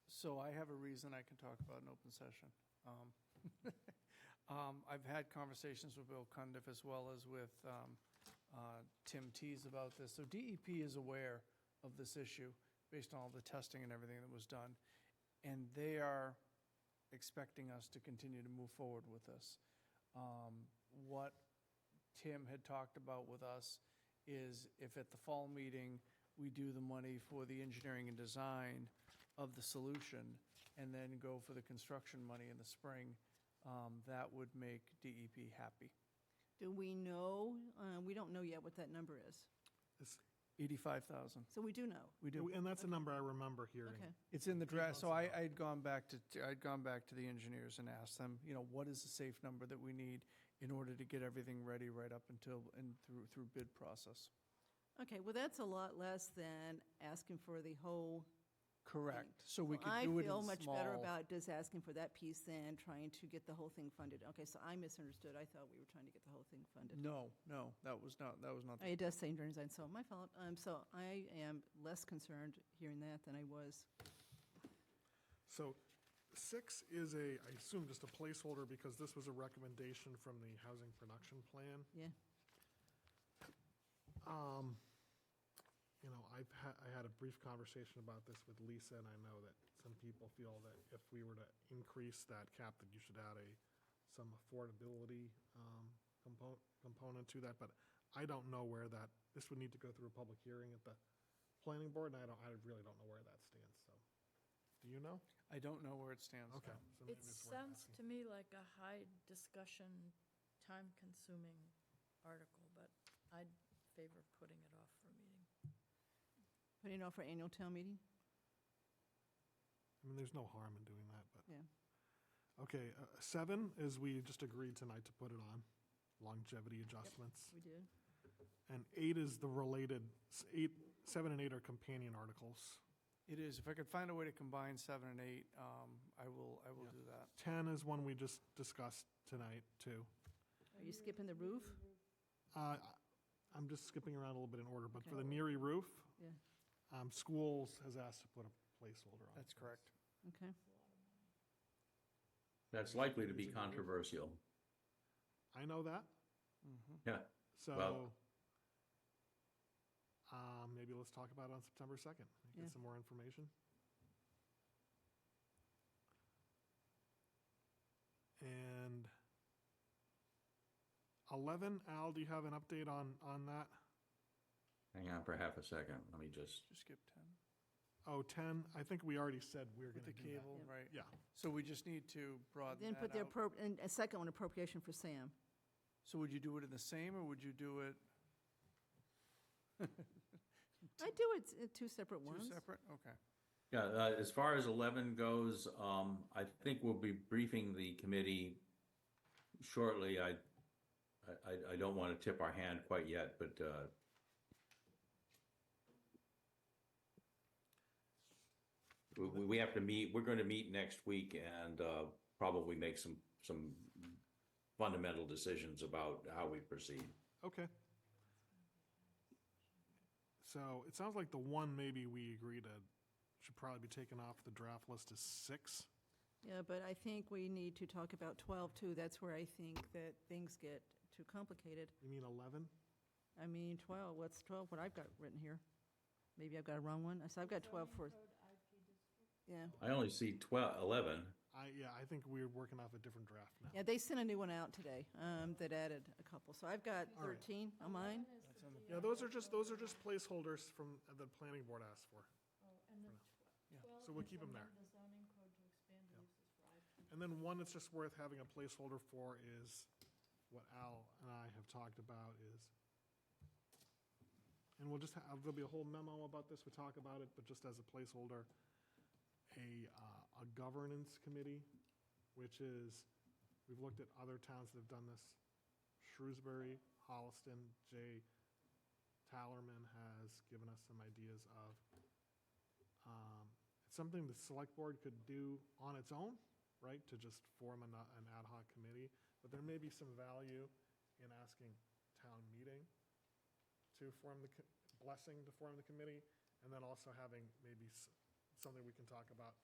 So I have a reason I can talk about an open session. Um, um, I've had conversations with Bill Cundiff as well as with um, uh, Tim Tees about this. So DEP is aware of this issue based on all the testing and everything that was done. And they are expecting us to continue to move forward with this. Um, What Tim had talked about with us is if at the fall meeting, we do the money for the engineering and design of the solution and then go for the construction money in the spring, um, that would make DEP happy. Do we know, uh, we don't know yet what that number is. It's- 85,000, So we do know. we do. And that's a number I remember Okay. hearing. It's in the Three draft, so months I, I had gone back to, I'd gone back to the engineers and asked them, you know, what is the safe number that we need in order to get everything ready right up until, and through, through bid process? Okay, well, that's a lot less than asking for the whole. Correct, so we Well, could do it in small. I feel much better about just asking for that piece than trying to get the whole thing funded. Okay, so I misunderstood. I thought we were trying to get the whole thing funded. No, no, that was not, that was not, the- It does say engineering design, so my fault. Um, So I am less concerned hearing that than I was. So six is a, I assume just a placeholder because this was a recommendation from the housing production plan. Um, Yeah, You know, I've had, I had a brief conversation about this with Lisa and I know that some people feel that if we were to increase that cap, that you should add a, some affordability, um, component, component to that, but I don't know where that, this would need to go through a public hearing at the planning board and I don't, I really don't know where that stands, so. Do you know? I don't know where it stands. Okay. so maybe It it's worth sounds asking. to me like a high discussion, time-consuming article, but I'd favor putting it off for a meeting. putting it off for annual town meeting? I mean, there's no harm in doing that, but, Yeah. okay, uh, seven is we just agreed tonight to put it on, longevity adjustments. We did. And eight is the related, s- eight, seven and eight are companion articles. It is, if I could find a way to combine seven and eight, um, I will, I will Yeah. do that. 10 is one we just discussed tonight, too. Are you skipping the roof? Uh, I- I'm just skipping around a little bit in order, but for the Okay. Neary roof, Yeah, um, schools has asked to put a placeholder on. That's it. correct. okay. That's likely to be controversial. I know that, Mm-hmm. Yeah, so, Well- um, maybe let's talk about it on September 2nd. Yeah. Get some more information. And 11, Al, do you have an update on, on that? hang on for half a second. Let me just, Just skip 10 Oh, 10, I think we already said we were with the going to do that. cable, Yeah. right? Yeah, So we just need to broaden Then that put the, out. appro- and a second one, appropriation for Sam. So would you do it in the same, or would you do it I do it in two separate two ones. separate? Okay. yeah, uh, as far as 11 goes, um, I think we'll be briefing the committee shortly. I, I, I- I don't want to tip our hand quite yet, but, uh, we, we we have to meet, we're going to meet next week and, uh, probably make some, some fundamental decisions about how we proceed. okay. So it sounds like the one maybe we agreed to should probably be taken off the draft list is 6. Yeah, but I think we need to talk about 12, too. That's where I think that things get too complicated. You mean 11? I mean, 12, what's 12, what I've got written here? Maybe I've got a wrong one. So I've got 12 for, yeah. I only see 12, 11. I, yeah, I think we're working off a different draft now. Yeah, they sent a new one out today um, that added a couple. So I've got 13 on mine. Yeah, those are just, those are just placeholders from, that the planning board asked for. Oh, And then Yeah. twelve. So we'll keep 'em there. The zoning code to expand the uses for IP. And then one that's just worth having a placeholder for is what Al and I have talked about is, and we'll just have, there'll be a whole memo about this, we talk about it, but just as a placeholder, a, uh, a governance committee, which is, we've looked at other towns that have done this. Shrewsbury, Holliston, Jay Tallerman has given us some ideas of, um, it's something the select board could do on its own, right, to just form an, uh, an ad hoc committee, but there may be some value in asking town meeting to form the, co- blessing to form the committee, and then also having maybe s- something we can talk about